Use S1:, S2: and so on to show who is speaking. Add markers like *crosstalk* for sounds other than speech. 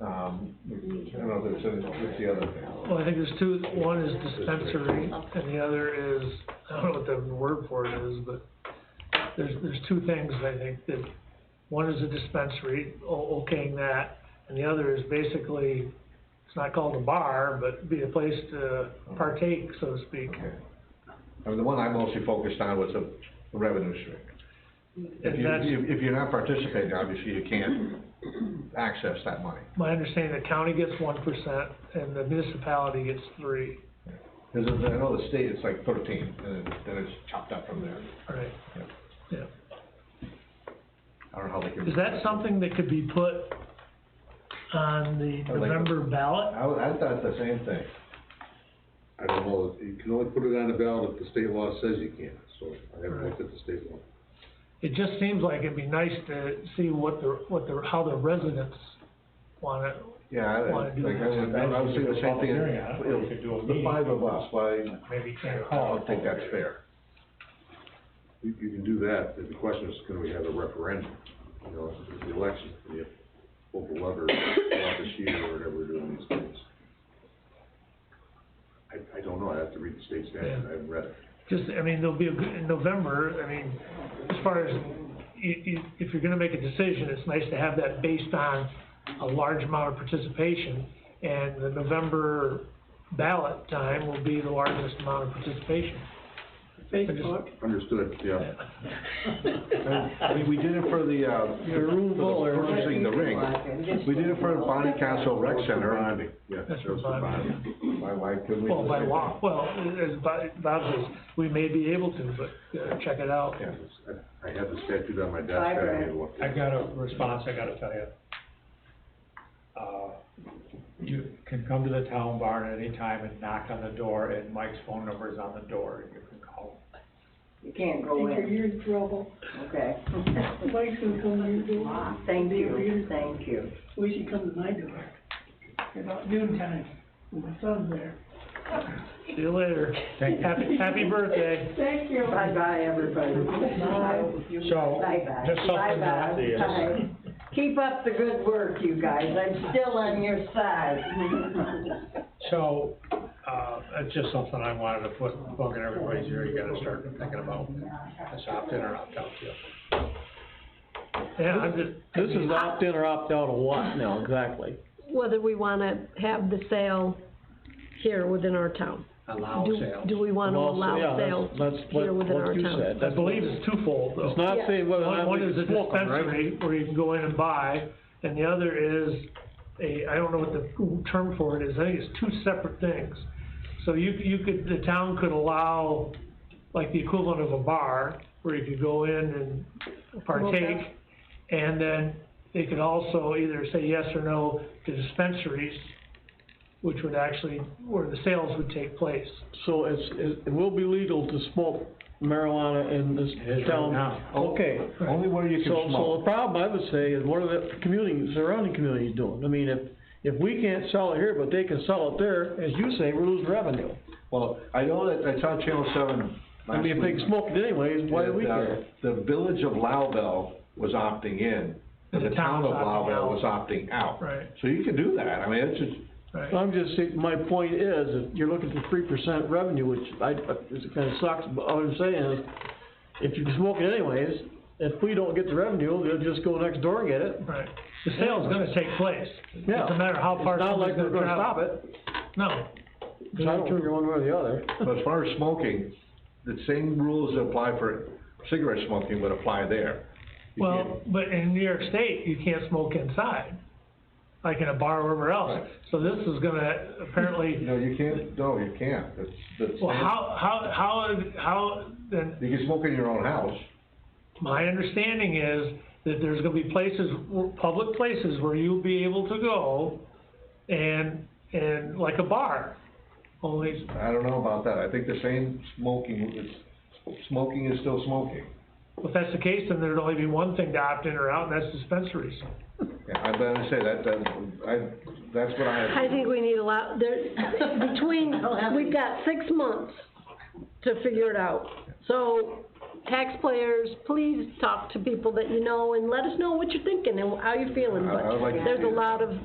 S1: um, I don't know if it's, in- it's the other thing.
S2: Well, I think there's two, one is dispensary, and the other is, I don't know what the word for it is, but there's, there's two things, I think, that, one is a dispensary, o- okaying that, and the other is basically, it's not called a bar, but be a place to partake, so to speak.
S1: Okay. I mean, the one I mostly focused on was the revenue stream. If
S2: And
S1: you,
S2: that's,
S1: if- if you're not participating, obviously you can't access that money.
S2: my understanding, the county gets one percent, and the municipality gets three,
S1: Cause it's- I know the state, it's like thirteen, and then- then it's chopped up from there.
S2: right?
S1: Yeah.
S2: Yeah.
S1: I don't know how they can.
S2: Is that something that could be put on the
S1: like that.
S2: November ballot?
S1: I, I thought the same thing.
S3: I don't know, you can only put it on the ballot if the state law says you can, so I haven't looked at the state law.
S2: It just seems like it'd be nice to see what the, what the, how the residents want it.
S1: Yeah, I,
S2: Wanna
S1: like,
S2: do
S1: I
S2: that.
S1: would, I would say the same thing,
S4: Hearing on it, we could do a
S1: It- the
S4: meeting.
S1: five of us, why,
S2: Maybe can't
S1: I don't think that's fair.
S3: You, you can do that, but the question is, can we have a referendum? You know, it's the election, you pull the lever, out this year, or whatever we're doing these things. I, I don't know, I have to read the state statute, I haven't read it.
S2: Just, I mean, there'll be a, good- in November, I mean, as far as, i- i- if you're gonna make a decision, it's nice to have that based on a large amount of participation. And the November ballot time will be the largest amount of participation.
S5: Facebook.
S3: Understood, yeah.
S1: I mean, we did it for the, uh,
S5: Your room full
S1: for
S5: or-
S1: the purchasing the ring. We did it for the Bonnie Council Rec Center.
S3: Bonding, yeah.
S2: That's
S3: that was for
S2: what bonding.
S3: bonding.
S1: Why, why couldn't we? do
S2: Well, by
S1: the same
S2: law, well, as Bob Bob says, we may be able to, but uh, check it out.
S1: thing? Yeah.
S3: I I have the statute on my desk, I
S5: Fiber.
S3: haven't looked
S4: I
S3: at it.
S4: got a response I gotta tell you. Uh, you can come to the town barn at any time and knock on the door, and Mike's phone number is on the door, and you can call.
S5: You can't go
S6: Think
S5: in,
S6: you're in trouble.
S5: okay.
S6: Mike's gonna come to your door.
S5: Thank you, thank you.
S6: Well, he should come to my door. About noon time, with my son there.
S2: See you later.
S4: Thank you.
S2: Happy, happy birthday.
S6: Thank you.
S5: Bye-bye, everybody.
S4: So,
S5: Bye-bye.
S4: just something that-
S5: Bye-bye. Bye. Keep up the good work, you guys, I'm still on your side. *laughs*
S4: So, uh, it's just something I wanted to put, plug in everybody's ear, you gotta start thinking about this opt-in or opt-out deal.
S2: Yeah, I'm just,
S7: This is opt-in or opt-out of what now, exactly?
S8: whether we wanna have the sale here within our town.
S4: Allow
S8: Do-
S4: sales.
S8: Do we wanna
S7: Well, yeah,
S8: allow
S7: that's-
S8: sales
S7: that's what-
S8: here within
S7: what
S8: our
S7: you
S8: town?
S7: said.
S2: I
S7: That's-
S2: believe it's twofold though.
S7: It's not
S8: Yeah.
S7: saying whether or
S2: One,
S7: not
S2: one
S7: we
S2: is a
S7: can smoke 'em, right?
S2: dispensary where you can go in and buy, and the other is a, I don't know what the term for it is, I think it's two separate things. So you, you could, the town could allow, like the equivalent of a bar, where you could go in and partake.
S8: Okay.
S2: And then they could also either say yes or no to dispensaries, which would actually, where the sales would take place.
S7: So it's, it it will be legal to smoke marijuana in this
S4: is right
S7: town?
S4: now.
S7: Okay.
S1: Only where you can
S7: So, so the
S1: smoke.
S7: problem I would say is what are the community, surrounding communities doing? I mean, if, if we can't sell it here, but they can sell it there, as you say, we're losing revenue.
S1: Well, I know that, I saw Channel Seven
S7: I mean, if
S1: last
S7: they
S1: week.
S7: can smoke it anyways, why do we
S1: that, uh,
S7: care?
S1: The village of Loudville was opting in, and
S2: The
S1: the town
S2: town's
S1: of
S2: opting
S1: Loudville
S2: out.
S1: was opting out.
S2: Right.
S1: So you can do that, I mean, it's just,
S2: Right.
S7: I'm just saying, my point is, if you're looking for three percent revenue, which I, it kinda sucks, but all I'm saying is, if you can smoke it anyways, if we don't get the revenue, they'll just go next door and get it.
S2: Right, the sale's gonna take place.
S7: Yeah.
S2: It's a matter of how far
S7: It's not
S2: somebody's
S7: like we're
S2: gonna
S7: gonna stop
S2: travel.
S7: it,
S2: No,
S7: it's not turning one way or the other.
S1: but as far as smoking, the same rules that apply for cigarette smoking would apply there. You
S2: well, but in New York State, you can't smoke inside, like in a bar or wherever else.
S1: Right.
S2: So this is gonna
S1: can't-
S2: apparently,
S1: No, you can't, no, you can't, it's, that's.
S2: well, how, how, how, is- how, then,
S1: You can smoke in your own house.
S2: my understanding is that there's gonna be places, w- public places where you'll be able to go and, and like a bar, only,
S1: I don't know about that, I think the same smoking, it's, smoking is still smoking.
S2: if that's the case, then there'd only be one thing to opt in or out, and that's dispensaries.
S1: Yeah, I'm gonna say that, that, I, that's what
S8: I
S1: I,
S8: think we need a lot, there, between, we've got six months to figure it out. So taxpayers, please talk to people that you know and let us know what you're thinking and how you're feeling,
S1: I- I would like
S8: but
S1: to
S8: there's
S1: see
S8: a
S1: that.
S8: lot of,